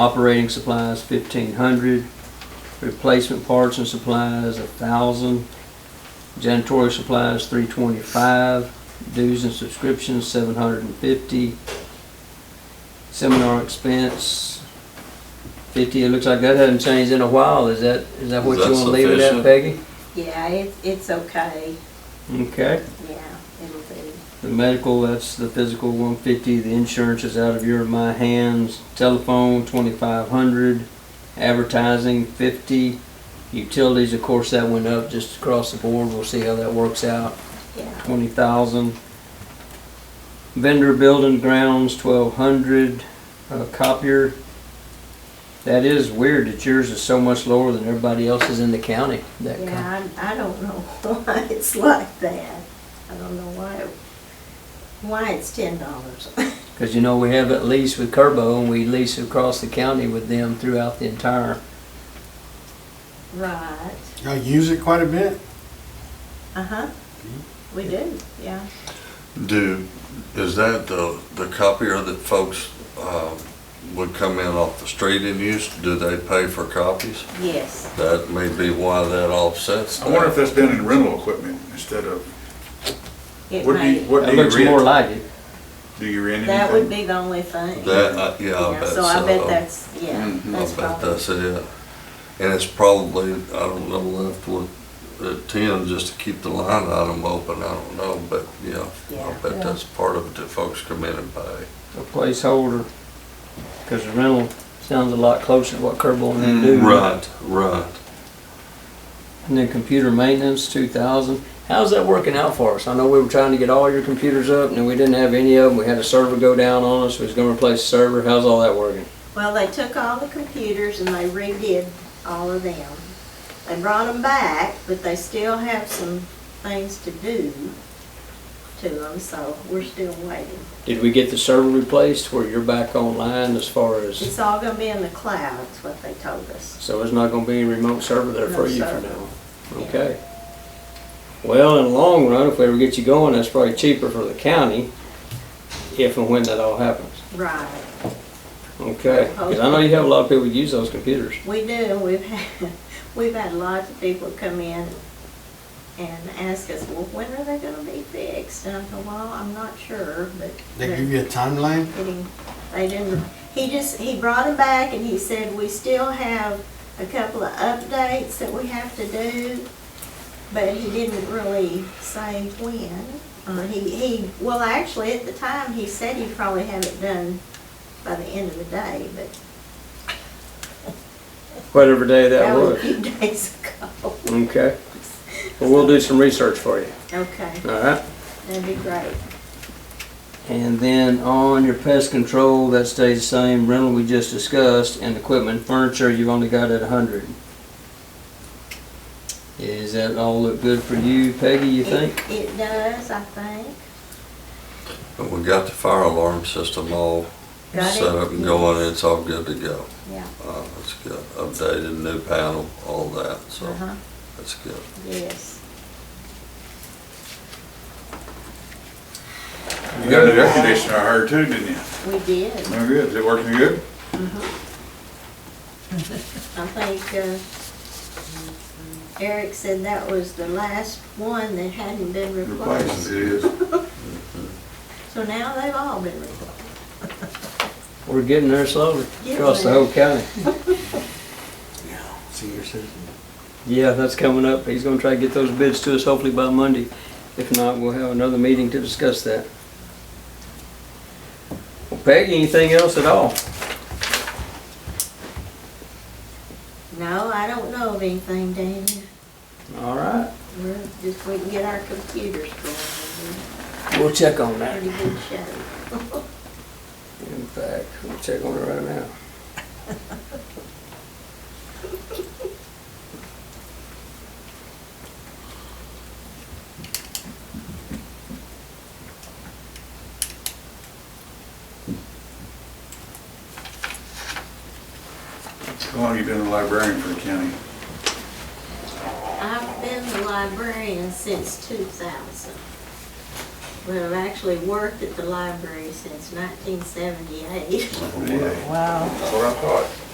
Operating supplies, fifteen hundred. Replacement parts and supplies, a thousand. Janitorial supplies, three twenty-five. Dues and subscriptions, seven hundred and fifty. Seminar expense, fifty. It looks like that hasn't changed in a while. Is that, is that what Is you that wanna leave it at, Peggy? sufficient? Yeah, it, it's okay, Okay. yeah, it'll be, The medical, that's the physical, one fifty, the insurance is out of your and my hands, telephone, twenty-five hundred, advertising, fifty, utilities, of course, that went up just across the board, we'll see how that works out, yeah, twenty thousand. Vendor building grounds, twelve hundred, uh, copier. That is weird that yours is so much lower than everybody else's in the county, that cop- yeah, I, I don't know why it's like that. I don't know why, it- why it's ten dollars. Because you know, we have it leased with Kerbo and we lease across the county with them throughout the entire, Right, I use it quite a bit. uh-huh, we do, yeah. Do, is that the, the copier that folks, uh, would come in off the street and use? Do they pay for copies? Yes, That may be why that offsets I wonder if that. that's done in rental equipment instead of, it what do you, may, what it do you looks more rent? like it. Do you rent anything? that would be the only thing. That, uh, yeah, I Yeah, bet so. So I bet that's, yeah, Mhm. I that's bet probably, that's it. And it's probably, I don't know, left with, at ten, just to keep the line item open, I don't know, but, yeah. I Yeah. bet that's part of it that folks come in and pay. A placeholder, because the rental sounds a lot closer to what Kerbo and Mm, them do. Right, right. And then computer maintenance, two thousand. How's that working out for us? I know we were trying to get all your computers up and we didn't have any of them. We had a server go down on us. We was gonna replace the server. How's all that working? well, they took all the computers and they redid all of them. They brought them back, but they still have some things to do to them, so we're still waiting. Did we get the server replaced where you're back online as far as, It's all gonna be in the clouds, what they told us. so there's not gonna be any remote server there for No you for server. now? Yeah. Okay. Well, in the long run, if we ever get you going, that's probably cheaper for the county, if and when that all happens. Right, Okay, because I know you have a lot of people who use those computers. we do, we've had, we've had lots of people come in and ask us, well, when are they gonna be fixed? And I go, well, I'm not sure, but. They they're- give you a timeline. getting, they didn't, he just, he brought them back and he said, we still have a couple of updates that we have to do, but he didn't really say when. Uh, he, he, well, actually, at the time, he said he'd probably have it done by the end of the day, but Whatever day that that was a was. few days ago. Okay. Well, we'll do some research for you, Okay, all right? that'd be great. And then on your pest control, that stays the same, rental we just discussed, and equipment, furniture, you've only got at a hundred. Is that all look good for you, Peggy, you think? It- It does, I think. But we got the fire alarm system all Got it? set up and going, it's all good to go. Yeah, Uh, it's good, updated, new panel, all that, so uh-huh, that's good. yes. You got a new air conditioner, I heard too, didn't you? We did. No good, is it working good? I think uh, Eric said that was the last one that hadn't been Replaced, replaced. it is. So now they've all been replaced. We're getting there slowly, Getting across the there. whole county. Senior citizen. Yeah, that's coming up. He's gonna try to get those bids to us hopefully by Monday. If not, we'll have another meeting to discuss that. Well, Peggy, anything else at all? No, I don't know of anything, Danny. All right, We're just, we can get our computers going. we'll check on We're that. in pretty good shape. In fact, we'll check on it right now. How long you been a librarian for the county? I've been the librarian since 2000. but I've actually worked at the library since nineteen seventy-eight. Yeah, Wow. That's what I thought.